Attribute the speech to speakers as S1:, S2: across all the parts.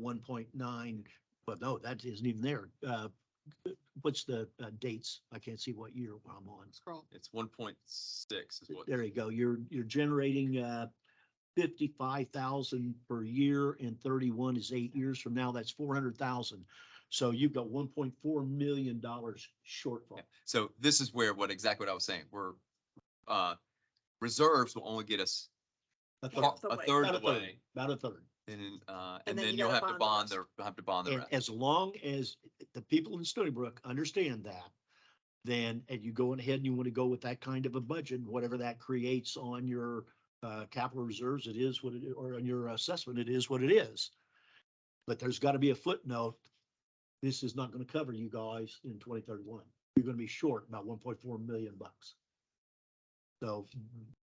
S1: one point nine, but no, that isn't even there. Uh, what's the uh, dates? I can't see what year I'm on.
S2: Scroll.
S3: It's one point six is what.
S1: There you go. You're, you're generating, uh, fifty-five thousand per year and thirty-one is eight years from now. That's four hundred thousand. So you've got one point four million dollars shortfall.
S3: Yeah. So this is where, what exactly what I was saying, we're, uh, reserves will only get us
S1: A
S3: par-
S1: third,
S2: Half the way.
S3: a third
S1: About
S3: of
S1: a
S3: the way.
S1: About a third.
S3: And, then, uh,
S2: And
S3: and
S2: then you
S3: then you'll have
S2: gotta
S3: to
S2: bond
S3: bond
S2: the
S3: the, have to bond the
S1: And
S3: rest.
S1: as long as the people in Stony Brook understand that, then, and you go ahead and you want to go with that kind of a budget, whatever that creates on your, uh, capital reserves, it is what it, or on your assessment, it is what it is. But there's got to be a footnote. This is not going to cover you guys in twenty thirty-one. You're going to be short about one point four million bucks. So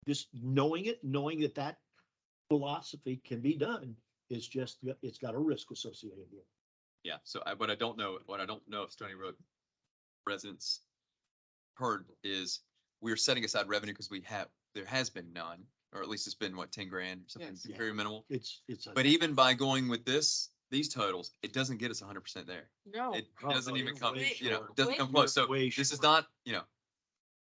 S1: just knowing it, knowing that that philosophy can be done, is just, it's got a risk associated with it.
S3: Yeah, so I, what I don't know, what I don't know if Stony Brook residents heard is we're setting aside revenue because we have, there has been none, or at least it's been what, ten grand or something,
S2: Yes.
S1: Yeah.
S3: very minimal.
S1: It's, it's. a-
S3: But even by going with this, these totals, it doesn't get us hundred percent there.
S2: No.
S3: It
S1: Oh,
S3: doesn't
S1: no, you're
S3: even come,
S1: way
S3: you know,
S1: short.
S3: it doesn't
S2: Way
S3: come close. So
S1: short. Way
S3: this is
S1: short.
S3: not, you know,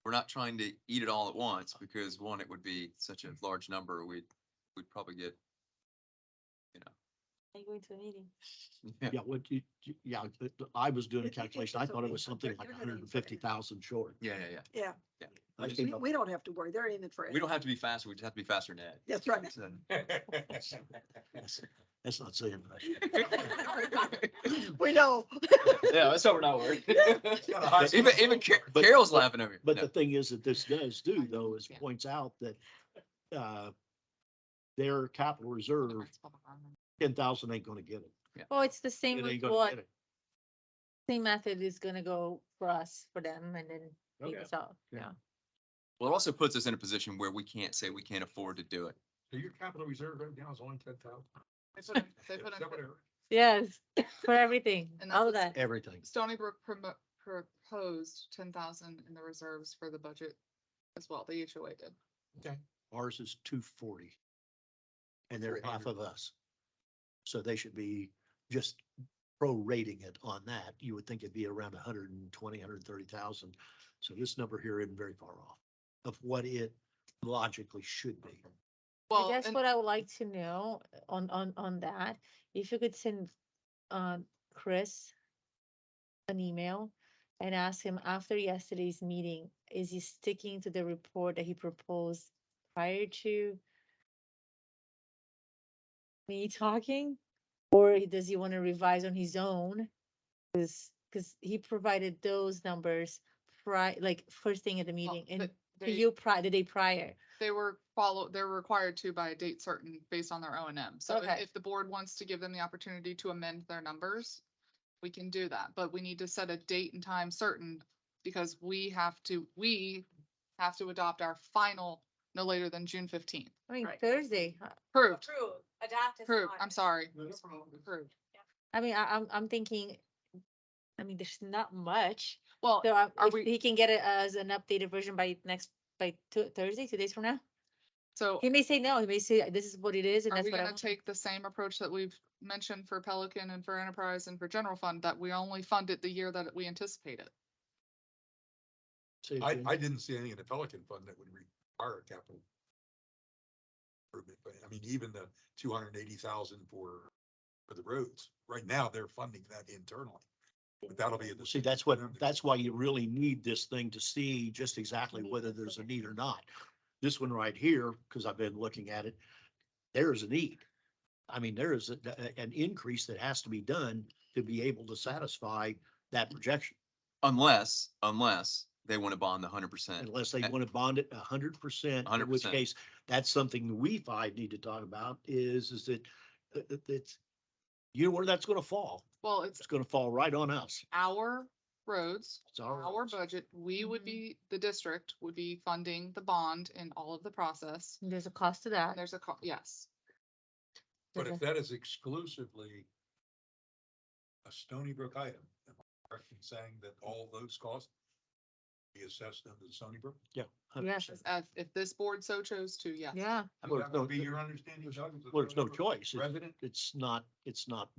S3: we're not trying to eat it all at once because one, it would be such a large number. We'd, we'd probably get,
S4: I'm going to a meeting.
S3: yeah,
S1: Yeah, what you, you- yeah, but I was doing a
S2: If you think
S1: calculation. I
S2: it's
S1: thought it
S2: okay,
S1: was something
S2: they're-
S1: like
S2: they're gonna
S1: hundred and fifty thousand short.
S3: yeah, yeah.
S2: Yeah,
S1: I
S3: We-
S1: think-
S2: we, we don't have to worry. They're aiming for.
S3: We don't have to be faster. We just have to be faster than Ed.
S2: That's right.
S3: So-
S1: That's not saying much.
S2: We know.
S3: Yeah, that's how we're not worried. Even, even Ca-
S1: But-
S3: Carol's laughing over here.
S1: But
S3: No.
S1: the thing is that this does do though is
S4: Yeah.
S1: points out that, uh, their capital reserve, ten thousand ain't gonna get it.
S4: Well, it's the
S1: It
S4: same
S1: ain't
S4: with
S1: gonna
S4: what,
S1: get it.
S4: same method is gonna go for us, for them, and then
S1: Okay.
S4: equals out,
S1: Yeah.
S4: yeah.
S3: Well, it also puts us in a position where we can't say we can't afford to do it.
S5: So your capital reserve right now is only ten thousand.
S6: They put in- they put in pro-
S4: Yes, for everything,
S6: And
S4: all
S6: that's
S4: that.
S1: Everything.
S6: Stony Brook promo proposed ten thousand in the reserves for the budget as well. The HOA did.
S1: Ours is two forty. And they're half
S5: 400.
S1: of us. So they should be just prorating it on that. You would think it'd be around 120, hundred and twenty, hundred and thirty thousand. So this number here isn't very far off of what it logically should be.
S4: I
S6: Well,
S4: guess
S6: and-
S4: what I would like to know uh, on, on, on that, if you could send, uh, Chris an email and ask him after yesterday's meeting, is he sticking to the report that he proposed prior to me talking? Or he- does he want to revise on his own? Cause, 'cause he provided those numbers prior, like first thing at the
S6: well,
S4: meeting and
S6: but
S4: to
S6: they-
S4: you prior, the day prior.
S6: They were follow, they're required to by a date certain based on their O and M. So if-
S4: Okay.
S6: if the board wants to give them the opportunity to amend their numbers, we can do that, but we need to set a date and time certain because we have to, we have to adopt our final no later than June fifteenth.
S4: I mean,
S2: Right.
S4: Thursday, huh?
S6: Approved,
S4: Approved, adopted.
S6: approved, I'm sorry. Approved.
S4: I mean, I, I'm, I'm thinking, I mean, there's not much.
S6: Well,
S4: So um,
S6: are
S4: if
S6: we-
S4: he can get it as an updated version by next, by Tu- Thursday, two days from now.
S6: so
S4: He may say no, he may say this is what it is and
S6: Are
S4: that's
S6: we
S4: what I
S6: gonna
S4: want.
S6: take the same approach that we've mentioned for Pelican and for Enterprise and for General Fund, that we only fund it the year that we anticipate it?
S1: See,
S5: I,
S1: Jim?
S5: I didn't see any in the Pelican fund that would require a capital. Improvement, but I mean, even the two hundred and eighty thousand for, for the roads, right now they're funding that internally. But that'll be. in the-
S1: See, that's what, that's why you really need this thing to see just exactly whether there's a need or not. This one right here, because I've been looking at it, there is a need. I mean, there is a- a- an increase that has to be done to be able to satisfy that projection
S3: Unless, unless they want to bond the hundred percent.
S1: unless they want to bond it a hundred percent. In which
S3: 100%.
S1: case, that's something we five need to talk about is, is that, that- that- that's, you know where that's going to fall?
S6: Well, it's
S1: It's going to fall right on us.
S6: our roads,
S1: It's our.
S6: our budget, we would
S4: Mhm.
S6: be, the district would be funding the bond in all of the process.
S4: There's a cost to that.
S6: And there's a, co- yes,
S5: But
S4: There's
S5: if
S4: a-
S5: that is exclusively a Stony Brook item, am I correct in saying that all those costs be assessed under the Stony Brook?
S1: Yeah. 100%.
S4: Yes,
S6: if, if this board so chose to, yes.
S4: yeah.
S5: I
S1: Well,
S5: mean,
S1: it's
S5: that would
S1: no-
S5: Be your understanding, Doug? as a
S1: Well, it's no
S5: Stony Brook
S1: choice. It's-
S5: Resident?
S1: It's not, it's not